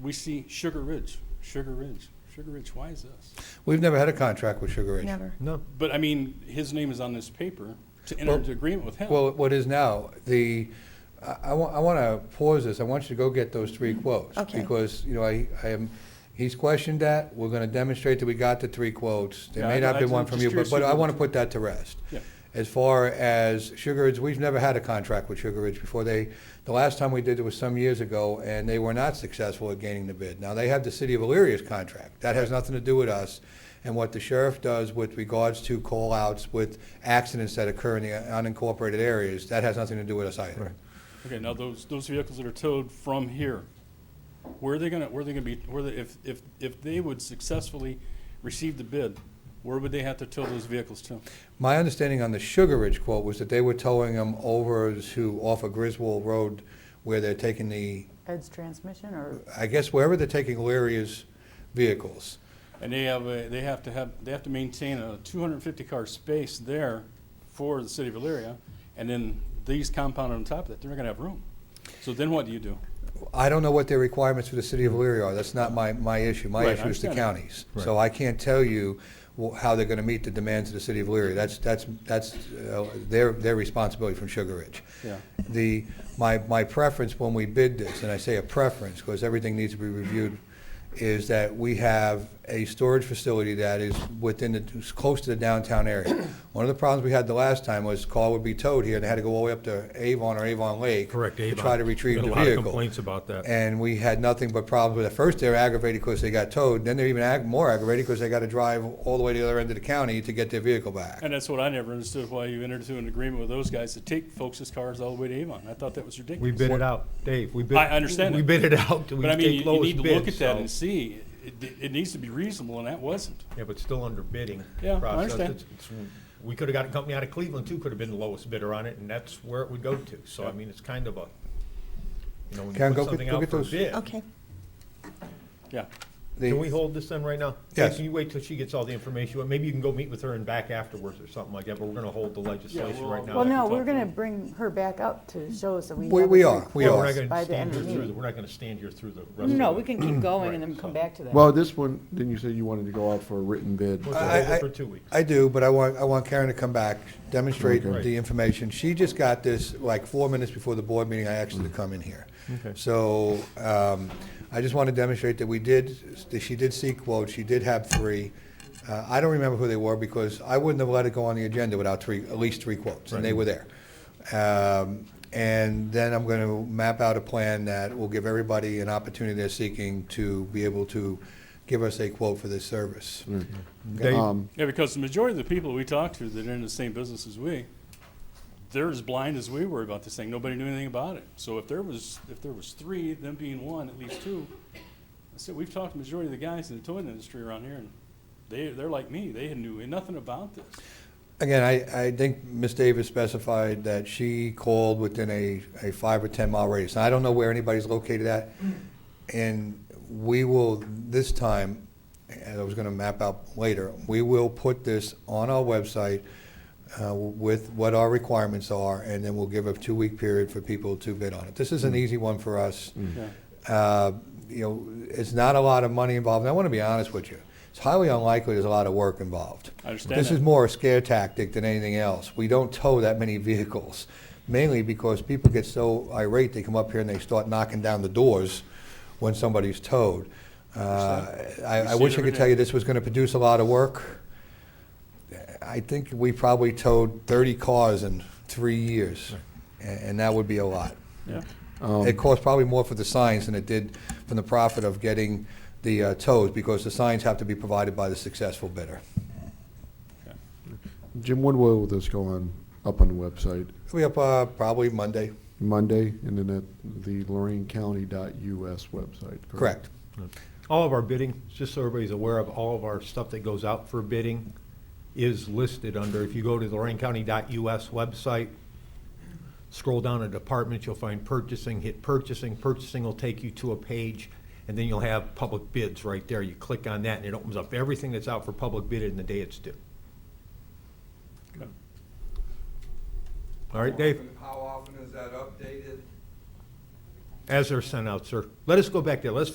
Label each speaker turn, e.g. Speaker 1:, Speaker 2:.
Speaker 1: we see Sugar Ridge, Sugar Ridge, Sugar Ridge. Why is this?
Speaker 2: We've never had a contract with Sugar Ridge.
Speaker 3: Never.
Speaker 4: No.
Speaker 1: But I mean, his name is on this paper to enter
Speaker 2: Well-
Speaker 1: into agreement with him.
Speaker 2: Well, what is now, the, I, I want to pause this, I want you to go get those three quotes.
Speaker 3: Mm-hmm. Okay.
Speaker 2: Because, you know, I, I am, he's questioned that, we're going to demonstrate that we got the three quotes. There
Speaker 1: Yeah,
Speaker 2: may
Speaker 1: I-
Speaker 2: not
Speaker 1: I-
Speaker 2: be one
Speaker 1: I'm
Speaker 2: from
Speaker 1: just
Speaker 2: you, but,
Speaker 1: curious
Speaker 2: but
Speaker 1: who
Speaker 2: I
Speaker 1: the-
Speaker 2: want to put that to rest.
Speaker 1: Yeah.
Speaker 2: As far as Sugar Ridge, we've never had a contract with Sugar Ridge before. They, the last time we did it was some years ago, and they were not successful at gaining the bid. Now, they have the City of Illyria's contract. That has nothing to do with us. And what the sheriff does with regards to call-outs with accidents that occur in the unincorporated areas, that has nothing to do with us either.
Speaker 4: Right.
Speaker 1: okay, now those those vehicles that are towed from here, where are they gonna where are they gonna be? Where they, if if if they would successfully receive the bid, where would they have to tow those vehicles to?
Speaker 2: My understanding on the Sugar Ridge quote was that they were towing them over to, off of Griswold Road, where they're taking the,
Speaker 5: Ed's transmission or?
Speaker 2: I guess wherever they're taking Illyria's vehicles.
Speaker 1: And they have a, they have to have they have to maintain a 250 car space there for the city of Elyria, and then these compounded on top of that, they're not gonna have room. So then what do you do?
Speaker 2: I don't know what their requirements for the city of Elyria are. That's not my, my issue. My
Speaker 1: Right, I
Speaker 2: issue is the
Speaker 1: understand that.
Speaker 2: counties. So I can't tell you wh- how they're going to meet the demands of the city of Elyria. That's, that's, that's uh, their, their responsibility from Sugar Ridge.
Speaker 1: Yeah.
Speaker 2: The, my, my preference when we bid this, and I say a preference because everything needs to be reviewed, is that we have a storage facility that is within the, is close to the downtown area. One of the problems we had the last time was car would be towed here and they had to go all the way up to Avon or Avon Lake.
Speaker 4: Correct,
Speaker 2: To
Speaker 4: Avon.
Speaker 2: try to retrieve the
Speaker 4: Got a
Speaker 2: vehicle.
Speaker 4: lot of complaints about that.
Speaker 2: And we had nothing but problems with it. First, they were aggravated because they got towed, then they're even ag- more aggravated because they got to drive all the way to the other end of the county to get their vehicle back.
Speaker 1: And that's what I never understood why you entered into an agreement with those guys to take folks' cars all the way to Avon. I thought that was ridiculous.
Speaker 4: We bid it out, Dave. We bid.
Speaker 1: I understand
Speaker 4: We
Speaker 1: that.
Speaker 4: bid it out. We
Speaker 1: But I mean,
Speaker 4: take
Speaker 1: you- you
Speaker 4: lowest
Speaker 1: need to
Speaker 4: bid,
Speaker 1: look at that
Speaker 4: so-
Speaker 1: and see, it, it needs to be reasonable, and that wasn't.
Speaker 4: Yeah, but still under bidding.
Speaker 1: Yeah, I
Speaker 4: process.
Speaker 1: understand.
Speaker 4: It's- it's- We could have got a company out of Cleveland too, could have been the lowest bidder on it, and that's where it would go to. So I mean, it's kind of a, you know, when
Speaker 2: Karen,
Speaker 4: you
Speaker 2: go
Speaker 4: put
Speaker 2: get-
Speaker 4: something
Speaker 2: go
Speaker 4: out
Speaker 2: get
Speaker 4: for a
Speaker 2: those.
Speaker 4: bid.
Speaker 3: Okay.
Speaker 1: Yeah.
Speaker 2: The-
Speaker 4: Can we hold this then right now?
Speaker 2: Yes.
Speaker 4: Can you wait till she gets all the information? Well, Maybe you can go meet with her and back afterwards or something like that, but we're gonna hold the legislation
Speaker 1: we'll-
Speaker 4: right now.
Speaker 5: Well,
Speaker 4: I can
Speaker 5: no,
Speaker 4: talk
Speaker 5: we're
Speaker 4: to
Speaker 5: going to
Speaker 4: her.
Speaker 5: bring her back up to show us that we.
Speaker 2: We-
Speaker 5: have
Speaker 2: we
Speaker 5: it
Speaker 2: are,
Speaker 5: pretty
Speaker 2: we are.
Speaker 4: We're
Speaker 5: close
Speaker 4: not gonna
Speaker 5: By the
Speaker 4: stand
Speaker 5: end
Speaker 4: here
Speaker 5: of the
Speaker 4: through, the-
Speaker 5: meeting.
Speaker 4: we're not gonna stand here through the rest of the.
Speaker 5: No, we can keep going
Speaker 4: Right,
Speaker 5: and then come
Speaker 4: so-
Speaker 5: back to that.
Speaker 6: Well, this one, didn't you say you wanted to go out for a written bid? Uh,
Speaker 4: We'll
Speaker 2: I-
Speaker 4: hold
Speaker 2: I-
Speaker 4: it for two weeks.
Speaker 2: I do, but I want, I want Karen to come back, demonstrate
Speaker 4: Okay.
Speaker 2: the information. She just got this like four minutes before the board meeting, I asked her to come in here. So um, I just want to demonstrate that we did, that she did see quotes, she did have three. Uh, I don't remember who they were because I wouldn't have let it go on the agenda without three, at least three quotes, and they were there. Um, And then I'm going to map out a plan that will give everybody an opportunity they're seeking to be able to give us a quote for this service.
Speaker 4: Dave,
Speaker 6: Um,
Speaker 1: Yeah, because the majority of the people we talked to that are in the same business as we, they're as blind as we were about this thing. Nobody knew anything about it. So if there was, if there was three, them being one, at least two, I said, we've talked to the majority of the guys in the toy industry around here, and they, they're like me. They knew nothing about this.
Speaker 2: Again, I, I think Ms. Davis specified that she called within a, a five or 10-mile radius. Now, I don't know where anybody's located at, and we will, this time, and I was going to map out later, we will put this on our website uh, with what our requirements are, and then we'll give a two-week period for people to bid on it. This is an easy one for us.
Speaker 1: Yeah.
Speaker 2: Uh, You know, it's not a lot of money involved, and I want to be honest with you. It's highly unlikely there's a lot of work involved.
Speaker 1: I understand
Speaker 2: This
Speaker 1: that.
Speaker 2: is more a scare tactic than anything else. We don't tow that many vehicles, mainly because people get so irate, they come up here and they start knocking down the doors when somebody's towed. Uh,
Speaker 1: We
Speaker 2: I I
Speaker 1: see it
Speaker 2: wish I
Speaker 1: every
Speaker 2: could tell
Speaker 1: day.
Speaker 2: you this was going to produce a lot of work. I think we probably towed 30 cars in three years, a- and that would be a lot.
Speaker 1: Yeah.
Speaker 2: It cost probably more for the signs than it did from the profit of getting the uh, tows, because the signs have to be provided by the successful bidder.
Speaker 6: Jim, when will this go on, up on the website?
Speaker 2: It'll be up uh, probably Monday,
Speaker 6: Monday, and then at the lorainecounty.us website, correct?
Speaker 2: correct?
Speaker 4: All of our bidding, just so everybody's aware of, all of our stuff that goes out for bidding is listed under, if you go to the lorainecounty.us website, scroll down to departments, you'll find purchasing, hit purchasing, purchasing will take you to a page, and then you'll have public bids right there. You click on that, and it opens up everything that's out for public bid in the day it's due. All right, Dave?
Speaker 7: How often is that updated?
Speaker 4: As they're sent out, sir. Let us go back there. Let's